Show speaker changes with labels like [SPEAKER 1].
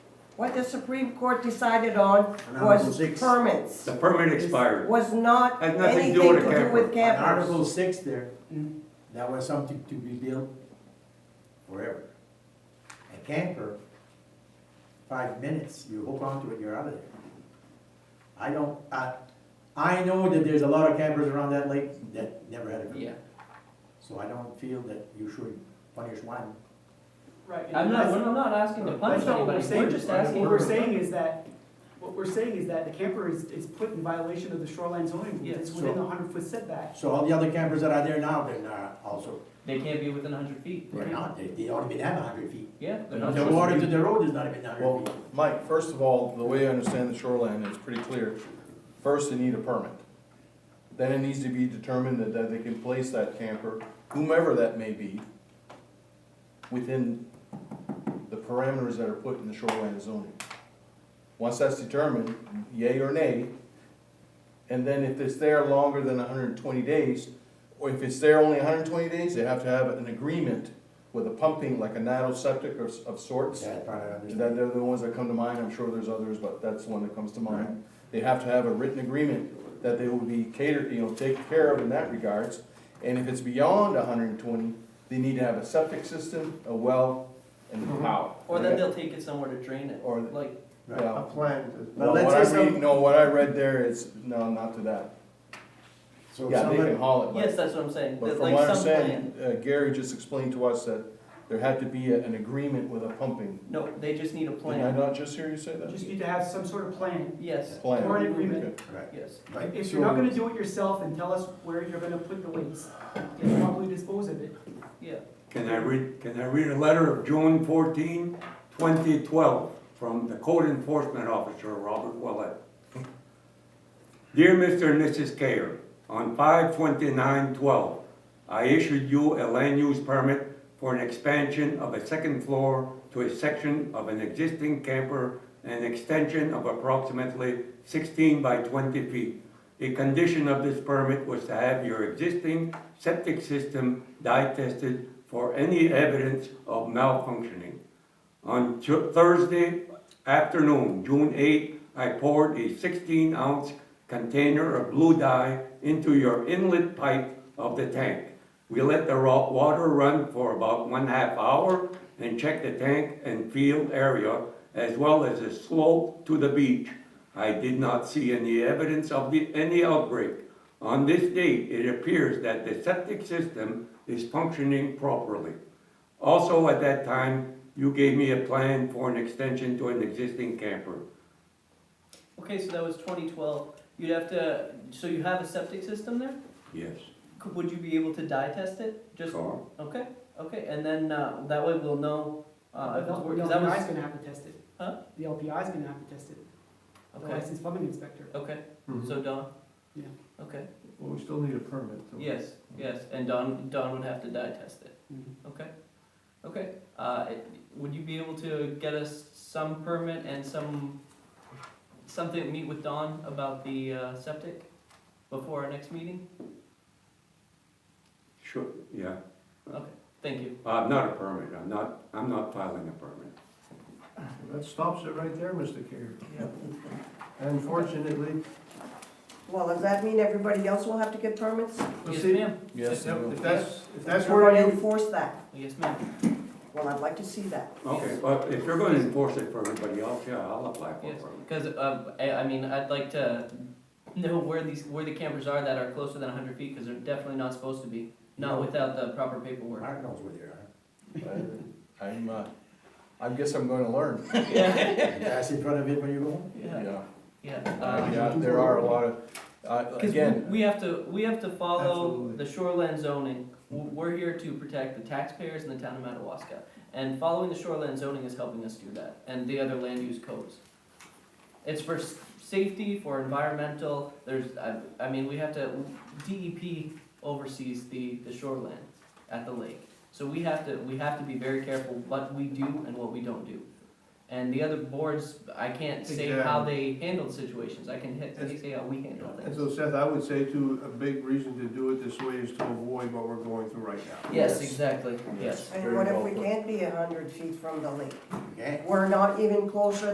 [SPEAKER 1] What the Supreme Court decided on
[SPEAKER 2] On Article
[SPEAKER 1] was
[SPEAKER 2] six.
[SPEAKER 1] permits.
[SPEAKER 3] The permit expired.
[SPEAKER 1] Was not
[SPEAKER 3] Has nothing to
[SPEAKER 1] anything
[SPEAKER 3] do
[SPEAKER 1] to
[SPEAKER 3] with the
[SPEAKER 1] do with
[SPEAKER 2] On
[SPEAKER 1] campers.
[SPEAKER 2] Article six there, that was something to be built forever. A camper, five minutes, you hook onto it, you're out of there. I don't, I, I know that there's a lot of campers around that lake that never had a permit.
[SPEAKER 4] Yeah,
[SPEAKER 2] So I don't feel that you should punish one.
[SPEAKER 5] Right. and
[SPEAKER 4] I'm not,
[SPEAKER 5] that's-
[SPEAKER 4] I'm not asking to punish
[SPEAKER 5] That's not what we're
[SPEAKER 4] anybody,
[SPEAKER 5] saying.
[SPEAKER 4] we're just asking.
[SPEAKER 5] What we're
[SPEAKER 4] for-
[SPEAKER 5] saying is that, what we're saying is that the camper is, is put in violation of the shoreline zoning rules.
[SPEAKER 4] Yeah.
[SPEAKER 5] It's within
[SPEAKER 2] So-
[SPEAKER 5] the hundred foot setback.
[SPEAKER 2] So all the other campers that are there now, they're not also,
[SPEAKER 4] They can't be within hundred feet.
[SPEAKER 2] they're not, they, they don't even have a hundred feet.
[SPEAKER 4] Yeah, they're not.
[SPEAKER 2] The
[SPEAKER 4] supposed
[SPEAKER 2] water
[SPEAKER 4] be.
[SPEAKER 2] to the road is not even a hundred
[SPEAKER 6] Well,
[SPEAKER 2] feet.
[SPEAKER 6] Mike, first of all, the way I understand the shoreline is pretty clear. First, they need a permit. Then it needs to be determined that, that they can place that camper, whomever that may be, within the parameters that are put in the shoreline zoning. Once that's determined, yay or nay, and then if it's there longer than hundred and twenty days, or if it's there only hundred and twenty days, they have to have an agreement with a pumping, like a nano septic or s- of sorts.
[SPEAKER 2] That part I understand.
[SPEAKER 6] That, they're the ones that come to mind, I'm sure there's others, but that's the one that comes to mind. They have to have a written agreement that they will be catered, you know, taken care of in that regards. And if it's beyond hundred and twenty, they need to have a septic system, a well, and power.
[SPEAKER 4] Or then they'll take it somewhere to drain it,
[SPEAKER 6] Or-
[SPEAKER 4] like,
[SPEAKER 2] Mm-hmm. Right.
[SPEAKER 6] Yeah.
[SPEAKER 7] plan to
[SPEAKER 2] But
[SPEAKER 6] Well,
[SPEAKER 2] let's
[SPEAKER 6] what I
[SPEAKER 2] say some-
[SPEAKER 6] read, no, what I read there is, no, not to that.
[SPEAKER 2] So if
[SPEAKER 6] Yeah, they
[SPEAKER 2] somebody,
[SPEAKER 6] can haul it,
[SPEAKER 4] yes,
[SPEAKER 6] but,
[SPEAKER 4] that's what I'm saying,
[SPEAKER 6] but
[SPEAKER 4] there's
[SPEAKER 6] from
[SPEAKER 4] like
[SPEAKER 6] what I'm
[SPEAKER 4] some plan.
[SPEAKER 6] saying, uh, Gary just explained to us that there had to be a- an agreement with a pumping.
[SPEAKER 4] No, they just need a
[SPEAKER 6] Did I
[SPEAKER 4] plan,
[SPEAKER 6] not just hear you say
[SPEAKER 5] You just
[SPEAKER 6] that?
[SPEAKER 5] need to have some sort of plan.
[SPEAKER 4] yes,
[SPEAKER 6] Plan.
[SPEAKER 5] Or an agreement.
[SPEAKER 2] right,
[SPEAKER 4] yes.
[SPEAKER 2] right.
[SPEAKER 5] If you're not gonna do it yourself and tell us where you're gonna put the waste, you probably dispose of it.
[SPEAKER 4] Yeah,
[SPEAKER 3] Can I read, can I read a letter of June 14, 2012, from the code enforcement officer, Robert Willett? Dear Mr. and Mrs. Kerr, on 5-29-12, I issued you a land use permit for an expansion of a second floor to a section of an existing camper, an extension of approximately sixteen by twenty feet. A condition of this permit was to have your existing septic system dye tested for any evidence of malfunctioning. On Tu- Thursday afternoon, June 8, I poured a 16-ounce container of blue dye into your inlet pipe of the tank. We let the raw water run for about one half hour and checked the tank and field area as well as the slope to the beach. I did not see any evidence of the, any outbreak. On this date, it appears that the septic system is functioning properly. Also, at that time, you gave me a plan for an extension to an existing camper.
[SPEAKER 4] okay, so that was twenty twelve, you'd have to, so you have a septic system there?
[SPEAKER 3] Yes.
[SPEAKER 4] Could, would you be able to dye test it, just,
[SPEAKER 3] Carl?
[SPEAKER 4] okay, okay, and then, uh, that way we'll know, uh, if it's
[SPEAKER 5] The
[SPEAKER 4] working, that was,
[SPEAKER 5] LPI is gonna have to test it.
[SPEAKER 4] Huh?
[SPEAKER 5] The LPI is gonna have to test it, the
[SPEAKER 4] okay,
[SPEAKER 5] licensed plumbing inspector.
[SPEAKER 4] okay,
[SPEAKER 3] Mm-hmm.
[SPEAKER 4] so Don?
[SPEAKER 5] Yeah.
[SPEAKER 4] Okay,
[SPEAKER 7] Well, we still need a permit. so-
[SPEAKER 4] yes, yes, and Don, Don would have to dye test it,
[SPEAKER 5] Mhm.
[SPEAKER 4] okay, okay, uh, it- would you be able to get us some permit and some, something, meet with Don about the, uh, septic before our next meeting?
[SPEAKER 3] Sure, yeah.
[SPEAKER 4] Okay, thank you,
[SPEAKER 3] I'm not a permit, I'm not, I'm not filing a permit.
[SPEAKER 7] That stops it right there, Mr. Carey. Unfortunately,
[SPEAKER 1] Well, does that mean everybody else will have to get permits?
[SPEAKER 7] Well,
[SPEAKER 4] yes
[SPEAKER 7] see-
[SPEAKER 4] ma'am,
[SPEAKER 6] Yes, they will.
[SPEAKER 7] if that's, if that's
[SPEAKER 1] You're
[SPEAKER 7] where
[SPEAKER 1] gonna
[SPEAKER 7] you,
[SPEAKER 1] enforce that?
[SPEAKER 4] yes ma'am,
[SPEAKER 1] Well, I'd like to see that.
[SPEAKER 3] Okay, but if you're gonna enforce it for everybody else, yeah, I'll apply for a
[SPEAKER 4] yes,
[SPEAKER 3] permit.
[SPEAKER 4] because, um, I, I mean, I'd like to know where these, where the campers are that are closer than hundred feet, because they're definitely not supposed to be, not without the proper paperwork.
[SPEAKER 2] Mark knows where they are.
[SPEAKER 6] I- I'm, uh, I guess I'm gonna learn,
[SPEAKER 4] Yeah,
[SPEAKER 2] That's in front of it when you go home.
[SPEAKER 4] yeah,
[SPEAKER 6] yeah.
[SPEAKER 4] yeah.
[SPEAKER 6] Uh,
[SPEAKER 4] um,
[SPEAKER 6] Yeah, there are a lot of, uh,
[SPEAKER 4] Because
[SPEAKER 6] again,
[SPEAKER 4] we have to, we have to follow
[SPEAKER 7] Absolutely.
[SPEAKER 4] the shoreline zoning. W- We're here to protect the taxpayers in the town of Madawaska. And following the shoreline zoning is helping us do that, and the other land use codes. It's for s- safety, for environmental, there's, I, I mean, we have to, DEP oversees the, the shoreline at the lake. So we have to, we have to be very careful what we do and what we don't do. And the other boards, I can't say how they handled situations, I can hit,
[SPEAKER 7] Exactly.
[SPEAKER 4] say how we handle things.
[SPEAKER 7] and so Seth, I would say too, a big reason to do it this way is to avoid what we're going through right now.
[SPEAKER 4] Yes,
[SPEAKER 6] Yes.
[SPEAKER 4] exactly, yes.
[SPEAKER 1] And
[SPEAKER 7] Very
[SPEAKER 1] what if
[SPEAKER 7] well
[SPEAKER 1] we
[SPEAKER 7] put.
[SPEAKER 1] can't be a hundred feet from the lake?
[SPEAKER 2] Okay?
[SPEAKER 1] We're not even closer